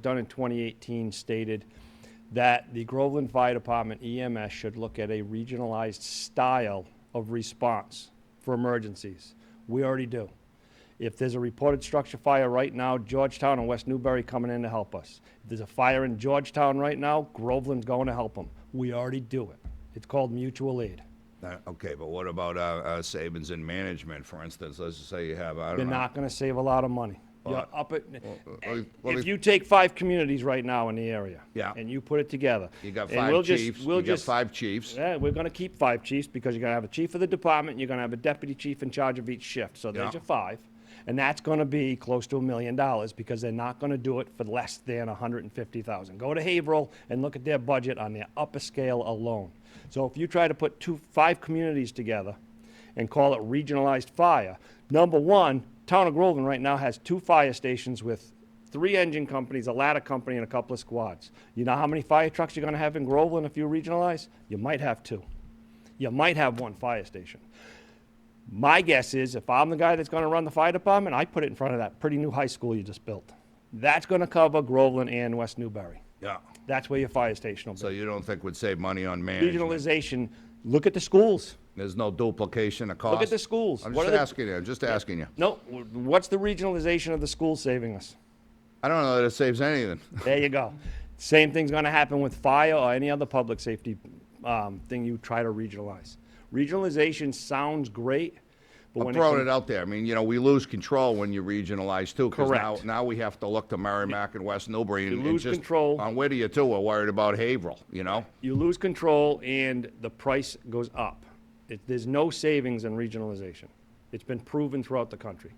done in 2018 stated that the Groveland Fire Department EMS should look at a regionalized style of response for emergencies. We already do. If there's a reported structure fire right now, Georgetown and West Newbury coming in to help us. If there's a fire in Georgetown right now, Groveland's going to help them. We already do it. It's called mutual aid. Uh, Okay, but what about our, our savings in management, for instance? Let's just say you have, I You're don't know. not going to save a lot of money. You're up at, uh, uh, well, if if- you take five communities right now in the area. Yeah. And you put it together. You got and we'll five just- chiefs, we'll you got just- five chiefs. Yeah, we're gonna keep five chiefs because you're gonna have a chief of the department, you're gonna have a deputy chief in charge of each shift, so there's Yeah. your five. And that's gonna be close to a million dollars because they're not gonna do it for less than a hundred and fifty thousand. Go to Haverhill and look at their budget on their upper scale alone. So if you try to put two, five communities together and call it regionalized fire, number one, town of Groveland right now has two fire stations with three engine companies, a ladder company, and a couple of squads. You know how many fire trucks you're going to have in Groveland if you regionalize? You might have two. You might have one fire station. My guess is if I'm the guy that's going to run the fire department, I put it in front of that pretty new high school you just built. That's going to cover Groveland and West Newbury. Yeah. That's where your fire station will be. So you don't think we'd save money on management? Regionalization, look at the schools. There's no duplication of cost? Look at the schools. I'm What just are the- asking you, I'm just asking you. No, w- what's the regionalization of the school saving us? I don't know that it saves anything. There you go. Same thing's going to happen with fire or any other public safety um, thing you try to regionalize. Regionalization sounds great, but I'm when throwing it it out there. I mean, you know, we lose control when you regionalize too. 'cause now- Correct. Now we have to look to Merrimack and West Newbury and and lose just- control. On Whittier too, we're worried about Haverhill, you know? you lose control and the price goes up, it, there's no savings in regionalization. It's been proven throughout the country.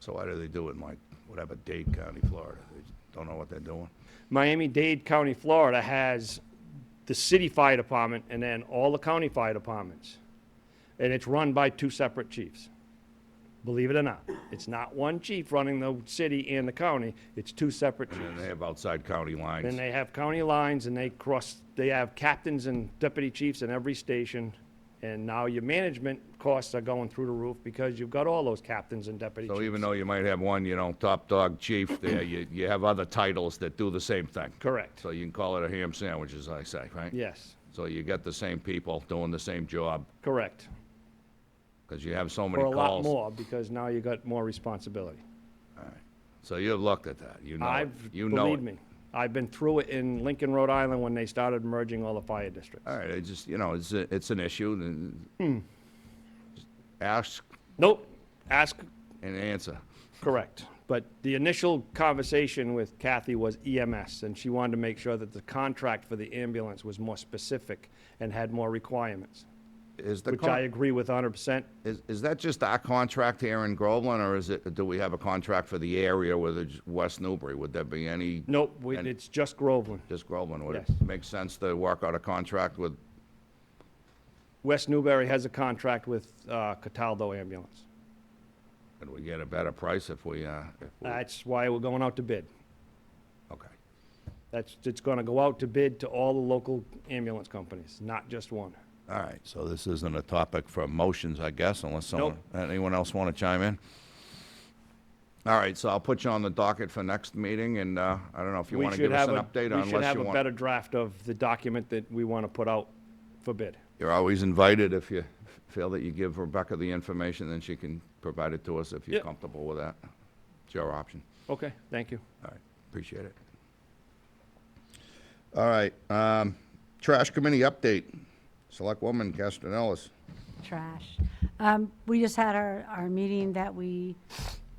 So why do they do it in like, whatever, Dade County, Florida? They don't know what they're doing? Miami-Dade County, Florida has the city fire department and then all the county fire departments. And it's run by two separate chiefs. Believe it or not, it's not one chief running the city and the county, it's two separate And chiefs. they have outside county lines. Then they have county lines and they cross, they have captains and deputy chiefs in every station. And now your management costs are going through the roof because you've got all those captains and deputy So chiefs. even though you might have one, you know, top dog chief there, you, you have other titles that do the same thing. Correct, So you can call it a ham sandwich, as I say, right? yes, So you get the same people doing the same job, correct. because you have so many Or a calls. lot more because now you got more responsibility. So you've looked at that, you know it, I've, you know believe it. me, I've been through it in Lincoln, Rhode Island when they started merging all the fire districts. All right, I just, you know, it's, a- it's an issue, and Hmm. just ask Nope, ask and answer. correct. But the initial conversation with Kathy was EMS, and she wanted to make sure that the contract for the ambulance was more specific and had more requirements, Is the, which I con- agree with 100%. is, is that just our contract here in Groveland, or is it, do we have a contract for the area with it's West Newbury? Would there be any? Nope, we- And- it's just Groveland. Just Groveland, would Yes. it make sense to work out a contract with, West Newbury has a contract with uh, Cataldo Ambulance. and we get a better price if we, uh, if we, That's why we're going out to bid. okay. That's, it's going to go out to bid to all the local ambulance companies, not just one. All right, so this isn't a topic for motions, I guess, unless someone, anyone else want to chime in? All right, so I'll put you on the docket for next meeting, and, uh, I don't know if you We want to should give us have an a, update or we should unless have you a want. better draft of the document that we want to put out for bid. You're always invited if you feel that you give Rebecca the information, then she can provide it to us if you're Yep. comfortable with that. It's your option. Okay, thank you. All right, appreciate it. All right, um, trash committee update. Select woman Castanellis. Trash. Um, we just had our, our meeting that we,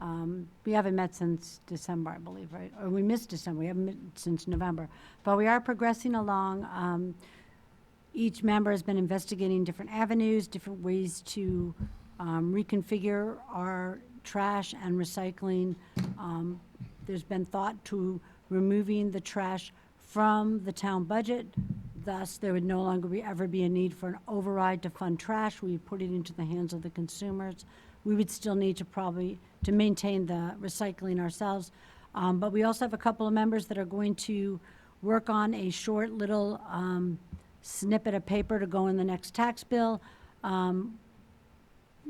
um, we haven't met since December, I believe, right? Or we missed December, we haven't met since November. But we are progressing along. Um, each member has been investigating different avenues, different ways to, um, reconfigure our trash and recycling. Um, there's been thought to removing the trash from the town budget. Thus, there would no longer be, ever be a need for an override to fund trash. We put it into the hands of the consumers. We would still need to probably, to maintain the recycling ourselves. Um, but we also have a couple of members that are going to work on a short little, um, snippet of paper to go in the next tax bill um,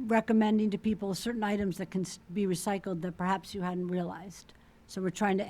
recommending to people certain items that can s- be recycled that perhaps you hadn't realized. So we're trying to